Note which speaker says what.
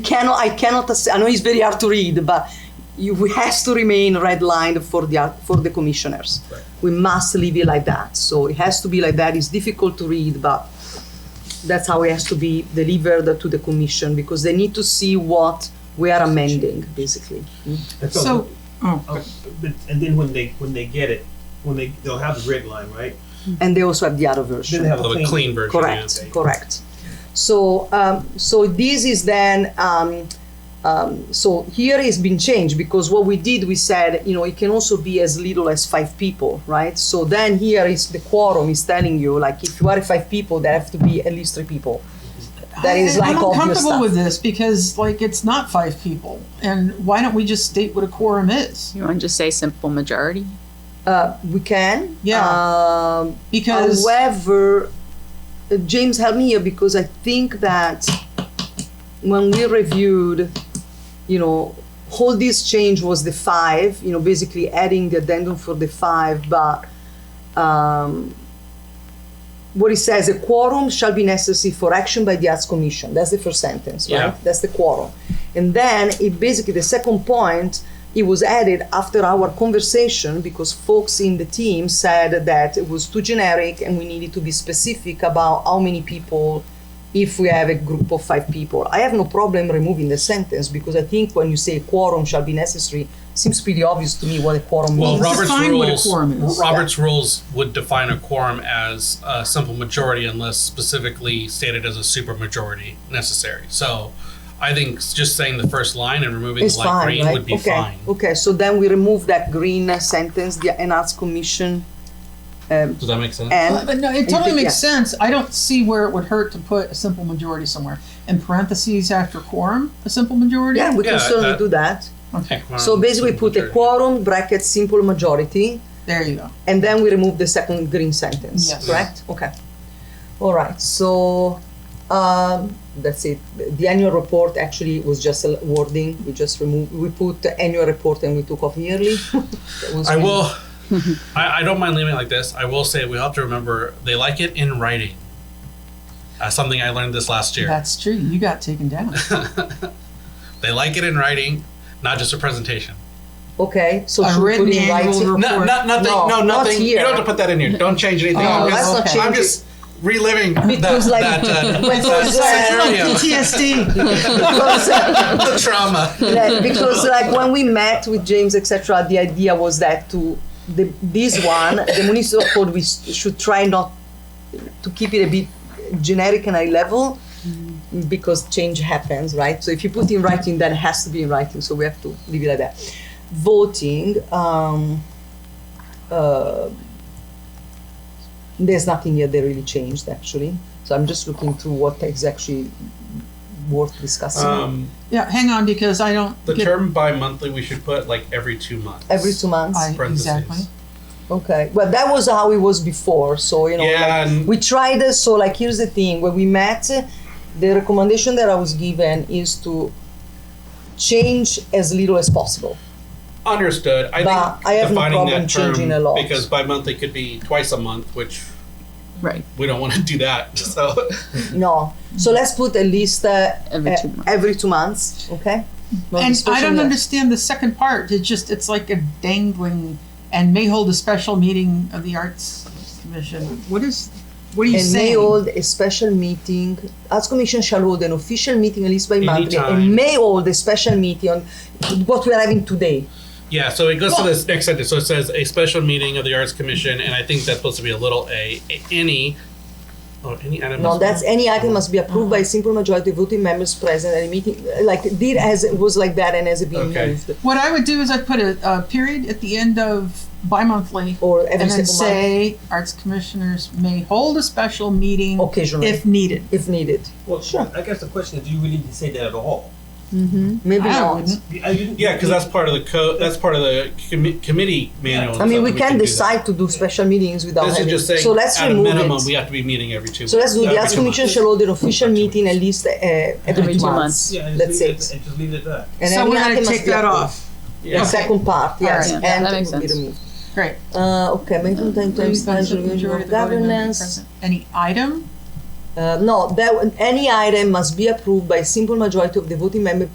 Speaker 1: Cannot, I cannot, ass- I know it's very hard to read, but you, we has to remain redlined for the, ar- for the commissioners. We must leave it like that. So it has to be like that. It's difficult to read, but that's how it has to be delivered to the commission because they need to see what we are amending, basically.
Speaker 2: That's all.
Speaker 3: So, oh,
Speaker 2: But, but- and then when they, when they get it, when they, they'll have the red line, right?
Speaker 1: And they also have the other
Speaker 2: Then
Speaker 1: version.
Speaker 2: they have
Speaker 4: Of a clean version. yeah.
Speaker 1: Correct, correct. So, um, so this is then, um, um, so here it's been changed because what we did, we said, you know, it can also be as little as five people, right? So then here is the quorum is telling you, like, if you are five people, there have to be at least three people. That is
Speaker 3: I-
Speaker 1: like
Speaker 3: I'm
Speaker 1: obvious
Speaker 3: uncomfortable
Speaker 1: stuff.
Speaker 3: with this because like it's not five people, and why don't we just state what a quorum is?
Speaker 5: You want to just say simple majority?
Speaker 1: Uh, we can.
Speaker 3: Yeah.
Speaker 1: Um,
Speaker 3: Because
Speaker 1: However, uh, James, help me here because I think that when we reviewed, you know, all this change was the five, you know, basically adding the addendum for the five, but um, what it says, a quorum shall be necessary for action by the Arts Commission. That's the first sentence, right?
Speaker 4: Yeah.
Speaker 1: That's the quorum. And then it basically, the second point, it was added after our conversation because folks in the team said that it was too generic and we needed to be specific about how many people if we have a group of five people. I have no problem removing the sentence because I think when you say quorum shall be necessary, seems pretty obvious to me what a quorum
Speaker 4: Well,
Speaker 1: means.
Speaker 4: Robert's
Speaker 3: define what a
Speaker 4: rules.
Speaker 3: quorum is.
Speaker 4: Robert's rules would define a quorum as a simple majority, unless specifically stated as a supermajority necessary. So, I think s- just saying the first line and removing
Speaker 1: It's
Speaker 4: the light
Speaker 1: fine,
Speaker 4: green
Speaker 1: right?
Speaker 4: would be
Speaker 1: okay.
Speaker 4: fine.
Speaker 1: Okay, so then we remove that green uh, sentence, the an arts commission,
Speaker 4: Does that make sense?
Speaker 1: and
Speaker 3: Uh, but no, it totally
Speaker 1: Yeah.
Speaker 3: makes sense. I don't see where it would hurt to put a simple majority somewhere in parentheses after quorum. A simple majority.
Speaker 1: yeah, we can
Speaker 4: Yeah,
Speaker 1: certainly
Speaker 4: that-
Speaker 1: do that.
Speaker 3: Okay.
Speaker 4: Quorum,
Speaker 1: So basically, put a
Speaker 4: supermajority.
Speaker 1: quorum bracket simple majority,
Speaker 3: There you go.
Speaker 1: and then we remove the second green sentence.
Speaker 3: Yes.
Speaker 1: Correct. Okay. All right. So um, that's it. The annual report actually was just a wording. We just removed. We put the annual report and we took off yearly. That was
Speaker 4: I
Speaker 1: really-
Speaker 4: will. I, I don't mind leaving it like this. I will say we have to remember they like it in writing. Uh, something I learned this last year.
Speaker 3: That's true. You got taken down.
Speaker 4: They like it in writing, not just a presentation.
Speaker 1: Okay. So
Speaker 3: A
Speaker 1: should we put
Speaker 3: written
Speaker 1: in
Speaker 3: annual
Speaker 1: writing?
Speaker 3: report.
Speaker 4: No, not nothing.
Speaker 1: No,
Speaker 4: No,
Speaker 1: not
Speaker 4: nothing. you
Speaker 1: here.
Speaker 4: don't have to put that in here. Don't change anything.
Speaker 3: Oh,
Speaker 4: I'm,
Speaker 3: let's
Speaker 4: just,
Speaker 3: not change
Speaker 4: I'm just reliving
Speaker 1: Because,
Speaker 4: that,
Speaker 1: like-
Speaker 4: that, uh,
Speaker 1: Because,
Speaker 4: that
Speaker 3: PTSD.
Speaker 1: Because, uh,
Speaker 4: scenario, the trauma.
Speaker 1: like, because like when we met with James etc the idea was that to the, this one the municipal code we s- should try not to keep it a bit generic and high level because change happens right so if you put in writing then it has to be in writing so we have to leave it like that voting um, uh, there's nothing here that really changed actually so i'm just looking through what is actually worth discussing
Speaker 4: Um,
Speaker 3: yeah, hang on because I don't
Speaker 4: the
Speaker 3: get
Speaker 4: term bi-monthly we should put like every two months.
Speaker 1: every two months
Speaker 3: I,
Speaker 4: Parentheses.
Speaker 3: exactly.
Speaker 1: Okay, well, that was how it was before. So you know,
Speaker 4: Yeah,
Speaker 1: like,
Speaker 4: and-
Speaker 1: we tried. uh, So like, here's the thing: when we met, uh, the recommendation that I was given is to change as little as possible.
Speaker 4: Understood. I
Speaker 1: But
Speaker 4: think
Speaker 1: I have no
Speaker 4: defining
Speaker 1: problem
Speaker 4: that term
Speaker 1: changing a lot.
Speaker 4: because bi-monthly could be twice a month, which
Speaker 5: Right.
Speaker 4: we don't want to do that. So
Speaker 1: No, so let's put at least uh,
Speaker 5: Mm-hmm. Every
Speaker 1: uh,
Speaker 5: two months.
Speaker 1: every two months. Okay. No
Speaker 3: And I
Speaker 1: discussion
Speaker 3: don't
Speaker 1: there.
Speaker 3: understand the second part. It's just it's like a dangling and may hold a special meeting of the Arts Commission. What is what are you
Speaker 1: And may
Speaker 3: saying?
Speaker 1: hold a special meeting. Arts Commission shall hold an official meeting at least by monthly, and
Speaker 4: Anytime.
Speaker 1: may hold a special meeting on what we are having today.
Speaker 4: yeah, so it goes to this next sentence. So it says a special meeting of the Arts Commission, and I think that's supposed to be a little a a- any. Oh, any item.
Speaker 1: No,
Speaker 4: is-
Speaker 1: that's any item must be approved by a simple majority of voting members present at a meeting. Like did as it was like that and has it been
Speaker 4: Okay.
Speaker 1: moved
Speaker 3: What I would do is I'd put a, a period at the end of bi-monthly
Speaker 1: or every
Speaker 3: and then
Speaker 1: single month
Speaker 3: say arts commissioners may hold a special meeting
Speaker 1: occasionally if,
Speaker 3: if needed.
Speaker 1: needed.
Speaker 2: Well, I guess the question is, do you really need to say that at all?
Speaker 1: Maybe
Speaker 3: I
Speaker 1: not.
Speaker 3: wouldn't.
Speaker 2: You- I didn't-
Speaker 4: Yeah, because that's part of the co- that's part of the commi- committee manual.
Speaker 1: I
Speaker 4: and
Speaker 1: mean,
Speaker 4: stuff,
Speaker 1: we
Speaker 4: and
Speaker 1: can
Speaker 4: do that.
Speaker 1: decide to do special meetings without
Speaker 4: This is
Speaker 1: having.
Speaker 4: just saying,
Speaker 1: so let's
Speaker 4: at a
Speaker 1: remove
Speaker 4: minimum,
Speaker 1: it.
Speaker 4: we have to be meeting every two.
Speaker 1: so let's do
Speaker 4: every
Speaker 1: the Arts
Speaker 4: two
Speaker 1: Commission
Speaker 4: months.
Speaker 1: shall hold an official
Speaker 4: Every two
Speaker 1: meeting at least uh, every
Speaker 5: Every
Speaker 1: two
Speaker 5: two
Speaker 1: months.
Speaker 2: Yeah, and
Speaker 1: That's it.
Speaker 2: just leave it, and just leave it at that.
Speaker 1: And
Speaker 3: so
Speaker 1: every
Speaker 3: we're
Speaker 1: item
Speaker 3: gonna
Speaker 1: must
Speaker 3: take
Speaker 1: be
Speaker 3: that
Speaker 1: approved.
Speaker 3: off.
Speaker 1: The
Speaker 4: Yeah.
Speaker 1: second part, yes,
Speaker 3: Alright.
Speaker 5: Yeah,
Speaker 1: and
Speaker 5: that
Speaker 1: it
Speaker 5: makes
Speaker 1: will be
Speaker 5: sense.
Speaker 1: removed.
Speaker 3: Great.
Speaker 1: Uh, okay, maintain time to
Speaker 3: Includes
Speaker 1: time
Speaker 3: the
Speaker 1: to
Speaker 3: majority of the voting members
Speaker 1: governance.
Speaker 3: present. Any item
Speaker 1: Uh, no, that any item must be approved by simple majority of the voting member